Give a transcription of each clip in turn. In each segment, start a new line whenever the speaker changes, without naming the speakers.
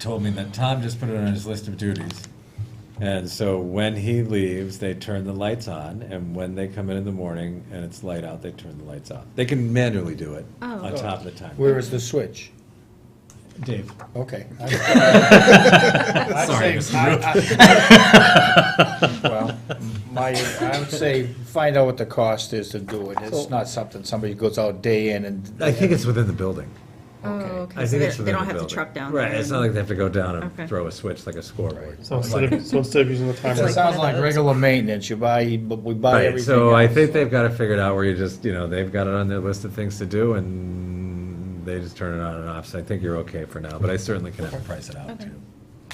told me that Tom just put it on his list of duties. And so when he leaves, they turn the lights on, and when they come in in the morning and it's light out, they turn the lights off. They can manually do it
Oh.
on top of the timer.
Where is the switch?
Dave.
Okay.
Sorry,
I'd say- I- I- Well, my, I would say, find out what the cost is to do it. It's not something somebody goes out day in and.
I think it's within the building.
Oh,
Okay.
okay,
I
so
think
they
it's
they
within the
don't have
building.
to truck down.
Right,
there
it's
and-
not like they have to go down
Okay.
and throw a switch like a scoreboard.
So instead of, so instead of using the
It's
It
timer,
like-
sounds like regular maintenance. You buy, but we buy
Right,
everything.
so I
else.
think they've got it figured out where you just, you know, they've got it on their list of things to do and they just turn it on and off. So I think you're okay for now, but I certainly can have to price it out too.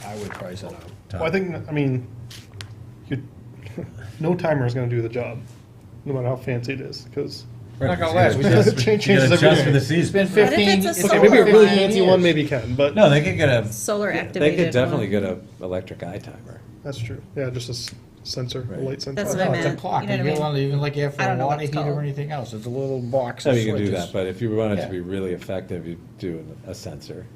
I would price it out.
Tom.
well, I think, I mean, you, no timer is gonna do the job, no matter how fancy it is, because
Not gonna last. We just-
change changes every
Just for the
day.
It's
season.
been fifteen.
it's a
it's
Okay,
solar
been
maybe a really
15
fancy one
years.
maybe can, but
No, they could get a,
Solar
they
activated.
could definitely
one.
get a electric eye timer.
that's true. Yeah, just a s- sensor, a
Right.
light sensor.
That's what I
No, it's a
meant,
clock.
you know
You
what I
get
mean?
one, even like you have for
I
a
don't know what
water
it's
heater
called.
or anything else. It's a little box
So
of
you can do
switches.
that, but if you want it
Yeah.
to be really effective, you do a sensor.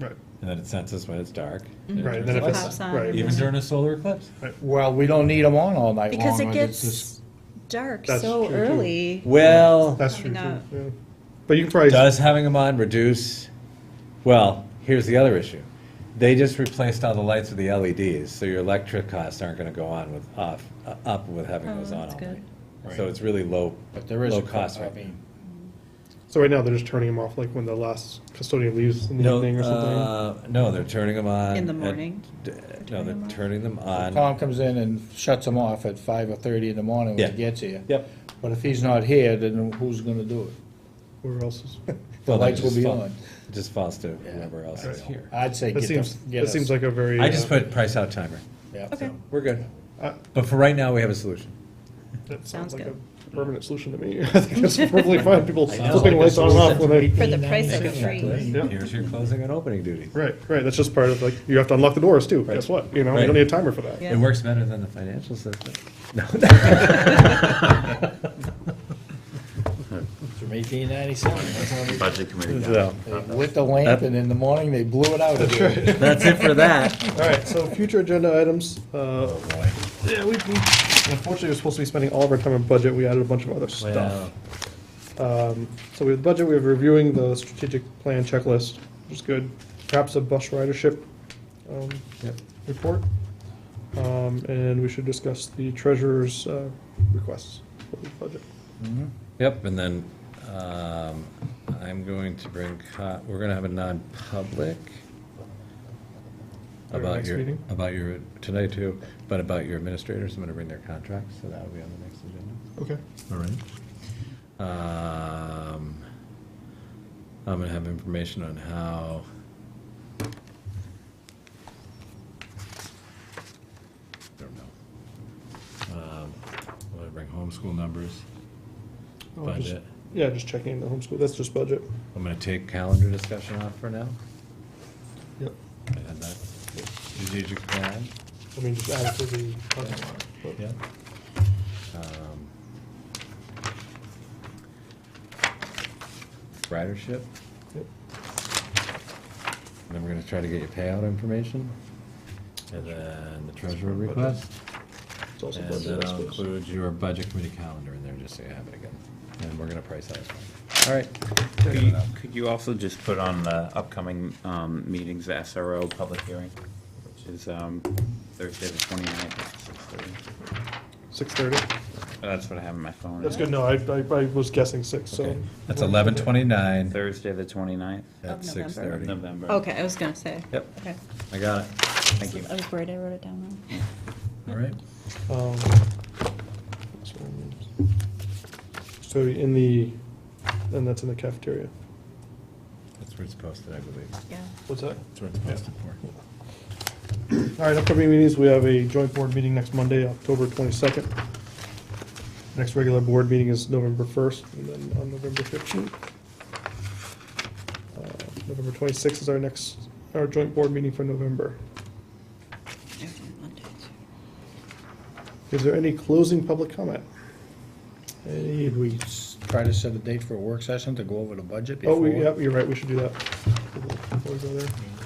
Right,
And then it senses when it's dark.
right, then if it's,
Pops on.
right,
Even during a solar eclipse.
Well, we don't need them on all night long.
Because it
but it's just-
gets dark
That's
so
true, too.
early.
Well,
that's true,
Probably
too,
not.
yeah. But you can probably,
does having them on reduce, well, here's the other issue. They just replaced all the lights with the LEDs, so your electric costs aren't gonna go on with, off, uh, up with having
Oh,
those on
that's
all
good.
night. So it's really low,
But there is
low
a
cost
cost. I
right now.
mean,
so right now, they're just turning them off, like when the last custodian leaves in the
No,
evening or something.
uh, no, they're turning them on.
In the
at-
morning?
d- No,
them
they're
on?
turning them on.
Tom comes in and shuts them off at five or thirty in the morning when
Yeah.
he gets here.
Yep.
But if he's not here, then who's gonna do it?
Where else is,
The
Well, that
lights will
just
be
fall-
on.
It just falls to whoever else is here.
I'd say
that
get
seems,
them, get
that
us.
seems like a very.
I
uh,
just put price out timer.
yeah.
Okay,
We're good.
Uh,
But for right now, we have a solution.
That
Sounds
sounds like a
good.
permanent solution to me. I think that's probably fine, people
know.
flipping lights on and off when they,
for the price of free.
Yeah.
Here's your closing and opening duty.
right, right, that's just part of, like, you have to unlock the doors too, guess what, you know, you
Right.
don't need a timer for that.
Yeah.
It works better than the financial system.
From eighteen ninety-seven.
Budget committee. guy.
So,
Lit the lamp and in the morning they blew it out again.
that's it for that.
All right, so future agenda items, uh,
Oh,
yeah, we, we- unfortunately, we're supposed to be spending all of our time on budget, we added a bunch of other stuff.
Well,
So with budget, we have reviewing the strategic plan checklist, which is good, perhaps a bus ridership, um, report. Um, and we should discuss the treasurer's, uh, requests for the budget.
Mm-hmm.
Yep, and then, um, I'm going to bring, co- we're gonna have a non-public
Our
about
next
your,
meeting?
about your, tonight too, but about your administrators, I'm gonna bring their contracts, so that'll be on the next agenda.
Okay.
All right. Um, I'm gonna have information on how. Don't know. Um, I'm gonna bring homeschool numbers,
Oh, just-
budget.
Yeah, just checking in the homeschool, that's just budget.
I'm gonna take calendar discussion off for now.
Yep.
I had that strategic plan.
I mean, just add it to the budget line. but-
Yeah. Um, Ridership,
Yep.
then we're gonna try to get your payout information, and then the treasurer request.
It's also
And
budget,
then
I
I'll
suppose.
include your budget committee calendar in there, just so you have it again, and we're gonna price out. All right.
Could you- Could you also just put on the upcoming um, meetings, the SRO public hearing, which is um, Thursday the 29th at 6:30?
6:30.
That's what I have on my phone.
That's good, no, I, I I was guessing six, so.
Okay, That's eleven twenty-nine
Thursday the 29th
at
Of
six
of
thirty.
November.
November.
okay, I was gonna say.
Yep.
Okay.
I got it,
Thank you.
I was worried I wrote it down wrong.
all right.
um, So in the, and that's in the cafeteria.
That's where it's posted, I believe.
Yeah.
What's that?
That's where it's posted for.
All right, upcoming meetings, we have a joint board meeting next Monday, October 22nd. Next regular board meeting is November 1st, and then on November 15th. Uh, November 26th is our next, our joint board meeting for November. Is there any closing public comment?
Did we s- try to set a date for a work session to go over the budget
Oh,
before?
we, yeah, you're right, we should do that. Before we go there.